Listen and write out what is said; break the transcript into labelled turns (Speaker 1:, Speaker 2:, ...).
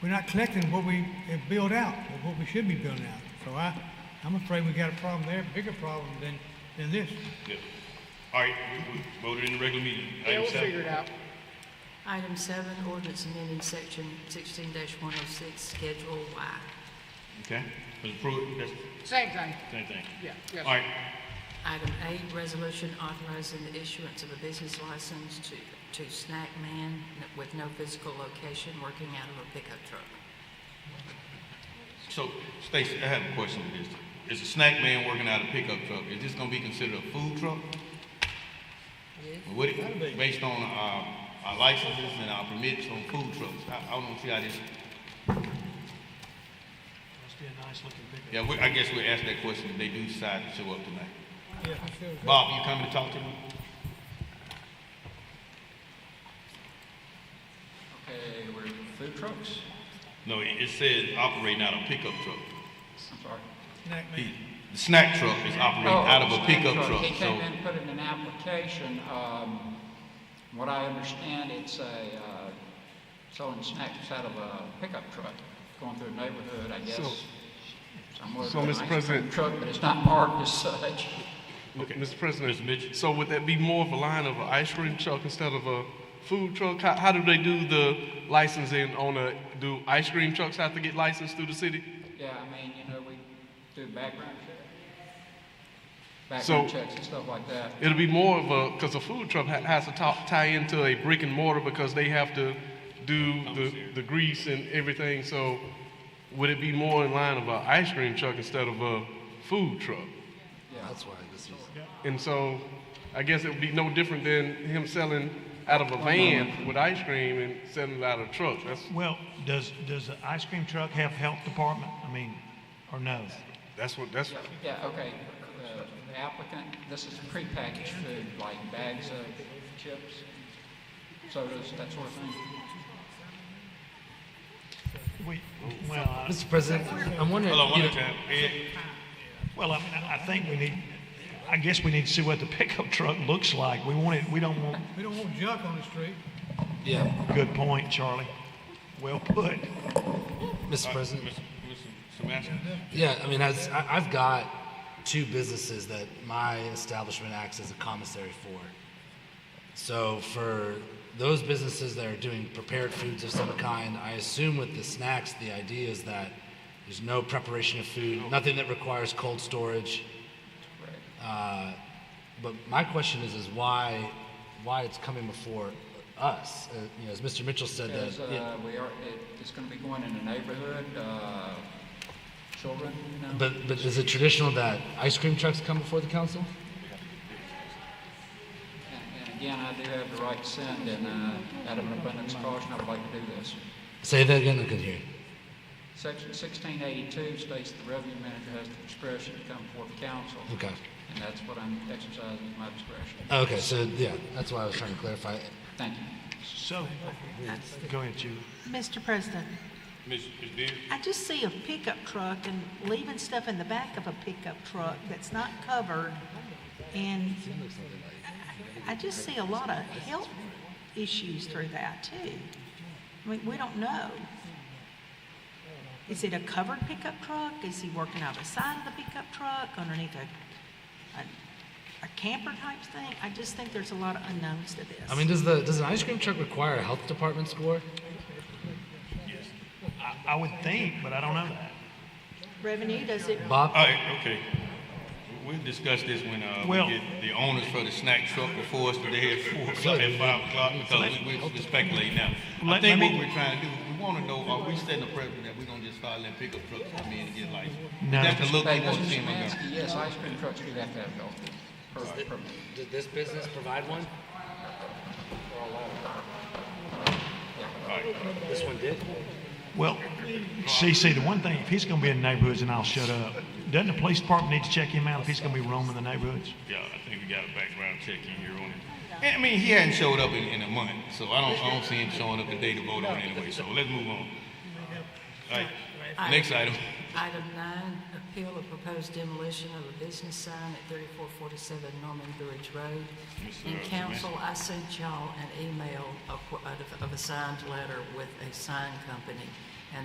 Speaker 1: we're not collecting what we have built out, or what we should be building out. So I, I'm afraid we got a problem there, bigger problem than, than this.
Speaker 2: Yep. All right, we- we voted in the regular meeting.
Speaker 3: Yeah,
Speaker 2: Item
Speaker 3: we'll
Speaker 2: seven.
Speaker 3: figure it out.
Speaker 4: Item seven, ordinance amending section sixteen one oh six, Schedule Y.
Speaker 2: Okay, was approved, that's
Speaker 3: Same thing,
Speaker 2: the same thing.
Speaker 3: yeah,
Speaker 2: All
Speaker 3: yes.
Speaker 2: right,
Speaker 4: Item eight, resolution authorizing the issuance of a business license to, to Snack Man with no physical location, working out of a pickup truck.
Speaker 2: so Stacy, I have a question with this. Is a snack man working out a pickup truck, is this gonna be considered a food truck? What, it- based on our, our licenses and our permits on food trucks, I, I don't see how this,
Speaker 5: Must be a nice looking pickup.
Speaker 2: yeah, we, I guess we'll ask that question if they do decide to show up tonight.
Speaker 1: Yeah, I feel that.
Speaker 2: Bob, you coming to talk to me?
Speaker 6: Okay, we're food trucks?
Speaker 2: No, it, it says operating out of a pickup truck.
Speaker 6: I'm sorry. Oh,
Speaker 1: Snack man.
Speaker 2: He- The snack truck is operating out of a pickup truck,
Speaker 6: He
Speaker 2: so,
Speaker 6: came in, put in an application, um, from what I understand, it's a, uh, selling snacks out of a pickup truck, going through a neighborhood, I guess. Somewhere
Speaker 7: so,
Speaker 6: with an
Speaker 7: Mr.
Speaker 6: ice cream
Speaker 7: President-
Speaker 6: Truck, but it's not marked as such.
Speaker 7: Mr. President.
Speaker 2: Mr. Mitchell.
Speaker 7: So would that be more of a line of an ice cream truck instead of a food truck? How, how do they do the licensing on a, do ice cream trucks have to get licensed through the city?
Speaker 6: Yeah, I mean, you know, we do background check.
Speaker 7: So-
Speaker 6: Background checks and stuff like that.
Speaker 7: It'll be more of a, because a food truck ha- has to ta- tie into a brick and mortar because they have to do the, the grease and everything. So would it be more in line of an ice cream truck instead of a food truck?
Speaker 6: That's why.
Speaker 7: And so I guess it would be no different than him selling out of a van with ice cream and selling it out of a truck. That's,
Speaker 5: Well, does, does the ice cream truck have health department? I mean, or no?
Speaker 7: that's what, that's,
Speaker 6: Yeah, okay, uh, the applicant, this is prepackaged food, like bags of chips, sodas, that sort of thing.
Speaker 5: We, well, I-
Speaker 8: Mr. President, I'm wondering,
Speaker 2: hold on
Speaker 8: you
Speaker 2: one
Speaker 8: know,
Speaker 2: time, Ed. uh,
Speaker 5: well, I mean, I I think we need, I guess we need to see what the pickup truck looks like. We want it, we don't want,
Speaker 1: We don't want junk on the street.
Speaker 8: yeah,
Speaker 5: good point, Charlie. Well put.
Speaker 8: Mr. President,
Speaker 2: Mr. Samantha?
Speaker 8: yeah, I mean, as, I, I've got two businesses that my establishment acts as a commissary for. So for those businesses that are doing prepared foods of some kind, I assume with the snacks, the idea is that there's no preparation of food, nothing that requires cold storage. Uh, But my question is, is why, why it's coming before us? Uh, you know, as Mr. Mitchell said,
Speaker 6: Because,
Speaker 8: that, yeah,
Speaker 6: uh, we are, it, it's gonna be going in the neighborhood, uh, children, you know?
Speaker 8: but, but is it traditional that ice cream trucks come before the council?
Speaker 6: And, and again, I do have the right to send, and, uh, out of an abundance of caution, I would like to do this.
Speaker 8: Say that again, I couldn't hear you.
Speaker 6: Section sixteen eighty-two states the revenue manager has the discretion to come before the council.
Speaker 8: Okay.
Speaker 6: And that's what I'm exercising, is my discretion.
Speaker 8: Okay, so yeah, that's why I was trying to clarify.
Speaker 6: Thank you.
Speaker 5: So, go ahead, Julie.
Speaker 9: Mr. President,
Speaker 2: Ms. Beard?
Speaker 9: I just see a pickup truck and leaving stuff in the back of a pickup truck that's not covered. And I- I just see a lot of health issues through that too. I mean, we don't know. Is it a covered pickup truck? Is he working out the side of the pickup truck underneath a, a- a camper type thing? I just think there's a lot of unknowns to this.
Speaker 8: I mean, does the does an ice cream truck require a health department score?
Speaker 5: I, I would think, but I don't know that.
Speaker 9: Revenue, does it
Speaker 8: Bob,
Speaker 2: All right, okay. We'll discuss this when, uh, we
Speaker 5: Well-
Speaker 2: get the owners for the snack truck before us today at four o'clock, at five o'clock, because we, we- we speculate now. I
Speaker 5: Let-
Speaker 2: think
Speaker 5: let
Speaker 2: what
Speaker 5: me-
Speaker 2: we're trying to do, we wanna know, are we setting a precedent that we're gonna just start letting pickup trucks come in and get licensed?
Speaker 5: No.
Speaker 2: That's the look we
Speaker 6: Hey,
Speaker 2: wanna
Speaker 6: Mr.
Speaker 2: see in Montgomery.
Speaker 6: Szymanski, yes, ice cream trucks do have to have health
Speaker 8: Uh,
Speaker 6: per, permit.
Speaker 8: did this business provide one? This one did.
Speaker 5: Well, CC, the one thing, if he's gonna be in the neighborhoods, and I'll shut up, doesn't the police department need to check him out if he's gonna be roaming the neighborhoods?
Speaker 2: Yeah, I think we got a background check in here on it. And, I mean, he hadn't showed up in, in a month, so I don't, I don't see him showing up today to vote on anyway, so let's move on. All right, next item.
Speaker 4: Item nine, appeal of proposed demolition of a business sign at thirty-four forty-seven Norman Bridge Road. In council, I sent y'all an email of, of- of a signed letter with a sign company